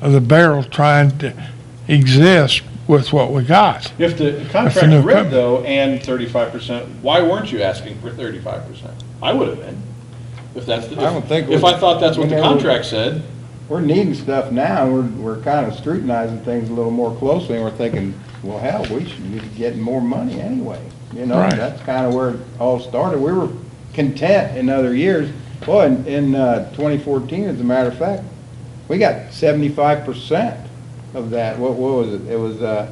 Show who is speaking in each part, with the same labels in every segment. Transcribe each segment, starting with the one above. Speaker 1: of the barrel trying to exist with what we got.
Speaker 2: If the
Speaker 1: If the
Speaker 2: contract's
Speaker 1: new
Speaker 2: rigged
Speaker 1: equip-
Speaker 2: though, and thirty-five percent, why weren't you asking for thirty-five percent? I would have been, if that's the.
Speaker 3: I don't think
Speaker 2: If
Speaker 3: we-
Speaker 2: I thought that's what
Speaker 3: we
Speaker 2: the
Speaker 3: never-
Speaker 2: contract said,
Speaker 3: We're needing stuff now, and we're, we're kind of scrutinizing things a little more closely, and we're thinking, well, hell, we should be getting more money anyway. You know,
Speaker 1: Right.
Speaker 3: that's kind of where it all started. We were content in other years. Boy, in, in uh, 2014, as a matter of fact, we got 75% of that. What, what was it? It was, uh,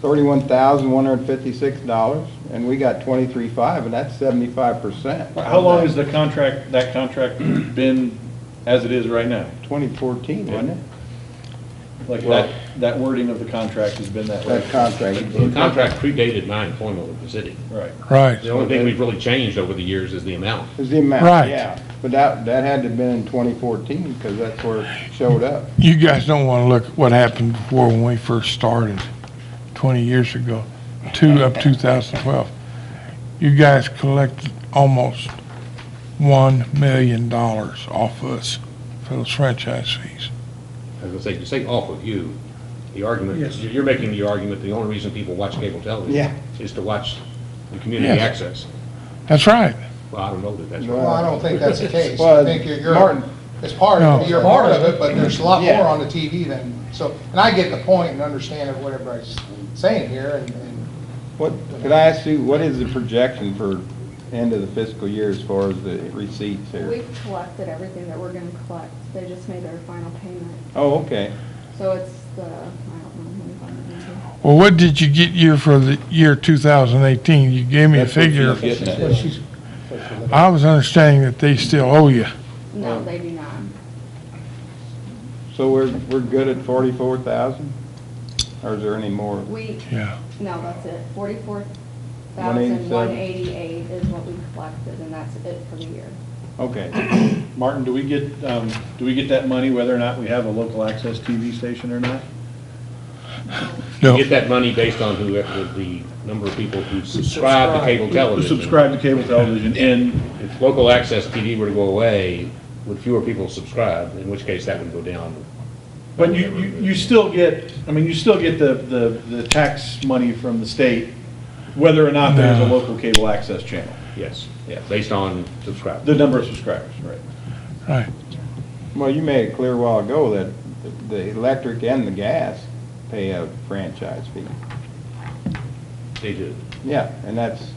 Speaker 3: $31,156, and we got 23.5, and that's 75%.
Speaker 2: how long has the contract, that contract been as it is right now?
Speaker 3: 2014, wasn't it?
Speaker 2: Like that, that wording of the contract has been that way.
Speaker 3: That contract.
Speaker 4: The contract predated my employment with the city.
Speaker 2: Right.
Speaker 1: Right.
Speaker 4: The only thing we've really changed over the years is the amount.
Speaker 3: Is the amount.
Speaker 1: Right.
Speaker 3: Yeah, but that, that had to have been in 2014, because that's where it showed up.
Speaker 1: You guys don't want to look at what happened before when we first started, 20 years ago, to up 2012. You guys collected almost $1 million off us for those franchise fees.
Speaker 4: As I say, you say off of you, the argument, you're you're making the argument, the only reason people watch cable television
Speaker 3: Yeah.
Speaker 4: is to watch the community
Speaker 1: Yes.
Speaker 4: access.
Speaker 1: That's right.
Speaker 4: Well, I don't know that that's
Speaker 3: Well,
Speaker 4: right.
Speaker 5: Well, I don't think that's the case.
Speaker 3: Well,
Speaker 5: I think you're,
Speaker 3: Martin-
Speaker 5: you're, it's part,
Speaker 1: No.
Speaker 5: of you're part of it, but there's a lot
Speaker 3: Yeah.
Speaker 5: more on the TV than, so, and I get the point and understand of what everybody's saying here, and, and
Speaker 3: What, could I ask you, what is the projection for end of the fiscal year as far as the receipts here?
Speaker 6: We've collected everything that we're gonna collect, they just made their final payment,
Speaker 3: Oh, okay.
Speaker 6: so it's the, I don't know, $1,100.
Speaker 1: Well, what did you get you for the year 2018? You gave me a
Speaker 3: That's what
Speaker 1: figure.
Speaker 3: she's getting at.
Speaker 5: Well, she's-
Speaker 1: I was understanding that they still owe you.
Speaker 3: Yeah.
Speaker 6: no, they do not.
Speaker 3: So we're, we're good at 44,000? Or is there any more?
Speaker 6: We,
Speaker 1: Yeah.
Speaker 6: no, that's it, forty-four thousand, one
Speaker 3: 187.
Speaker 6: eighty-eight is what we collected, and that's it for the year.
Speaker 3: Okay.
Speaker 2: Martin, do we get, um, do we get that money whether or not we have a local access TV station or not?
Speaker 1: No.
Speaker 4: You get that money based on who, the- the number of people who subscribe to cable
Speaker 2: Who
Speaker 4: television.
Speaker 2: Subscribe to cable television and,
Speaker 4: If local access TV were to go away, would fewer people subscribe, in which case that would go down.
Speaker 2: but you, you, you still get, I mean, you still get the, the, the tax money from the state, whether or not there's a
Speaker 1: No.
Speaker 2: local cable access channel,
Speaker 4: Yes, yeah, based on subscribers.
Speaker 2: the number of subscribers, right?
Speaker 1: Right.
Speaker 3: Well, you made it clear a while ago that the electric and the gas pay a franchise fee.
Speaker 4: They do.
Speaker 3: Yeah, and that's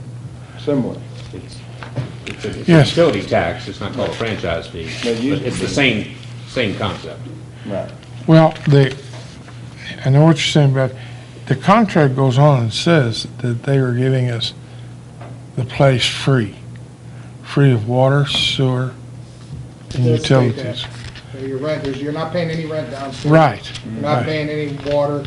Speaker 3: similar.
Speaker 4: It's, it's a- it's a
Speaker 1: Yes.
Speaker 4: utility tax, it's not called a franchise fee,
Speaker 3: But
Speaker 4: but
Speaker 3: you-
Speaker 4: it's the same, same concept.
Speaker 3: Right.
Speaker 1: Well, the, I know what you're saying, but the contract goes on and says that they are giving us the place free, free of water, sewer, and
Speaker 5: It does state
Speaker 1: utilities.
Speaker 5: that your rent, there's, you're not paying any rent downstairs.
Speaker 1: Right,
Speaker 5: You're not
Speaker 1: right,
Speaker 5: paying any water,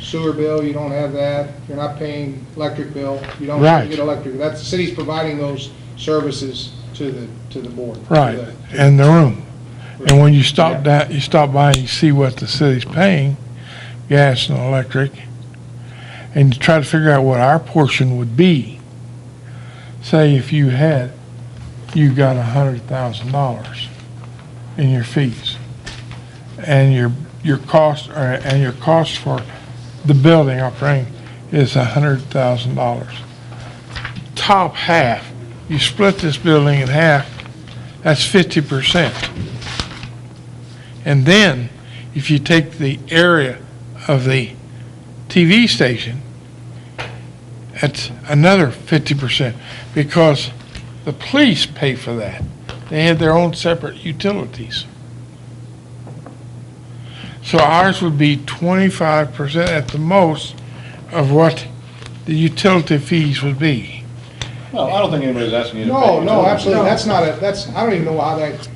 Speaker 5: sewer bill, you don't have that, you're not paying electric bill, you don't
Speaker 1: Right.
Speaker 5: get electric, that's, the city's providing those services to the, to the board. to
Speaker 1: right,
Speaker 5: the-
Speaker 1: and the room. And when you stop down, you stop by and you see what the city's paying, gas and electric, and you try to figure out what our portion would be. Say if you had, you got a hundred thousand dollars in your fees. And your, your cost, or- and your cost for the building operating is a hundred thousand dollars. Top half, you split this building in half, that's fifty percent. And then, if you take the area of the TV station, that's another fifty percent, because the police pay for that. They have their own separate utilities. So ours would be twenty-five percent at the most of what the utility fees would be.
Speaker 2: Well, I don't think anybody's asking you to pay.
Speaker 5: No, no,
Speaker 2: utilities.
Speaker 5: absolutely, that's not a, that's, I don't even know how that,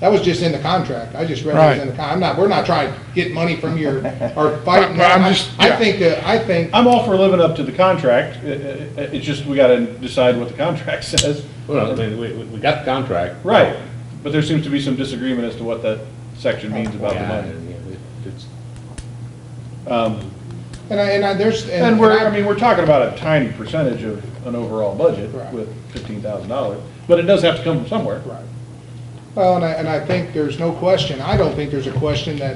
Speaker 5: that was just in the contract, I just read it was in the con, I'm not, we're not trying to get money from your, or
Speaker 1: But-
Speaker 5: fighting.
Speaker 1: but I'm
Speaker 5: I-
Speaker 1: just-
Speaker 5: I
Speaker 1: yeah.
Speaker 5: think, that- I think,
Speaker 2: I'm all for living up to the contract, It- it- it- it's just we gotta decide what the contract says.
Speaker 4: Well, I mean, we, we- we got the contract.
Speaker 2: Right, but there seems to be some disagreement as to what that section means about the
Speaker 4: Yeah,
Speaker 2: money.
Speaker 4: and, yeah, it- it's-
Speaker 5: and I, and I, there's.
Speaker 2: And we're, I
Speaker 5: I'm-
Speaker 2: mean, we're talking about a tiny percentage of an overall budget
Speaker 5: Right.
Speaker 2: with fifteen thousand dollars, but it does have to come from somewhere.
Speaker 5: Right. Well, and I, and I think there's no question, I don't think there's a question that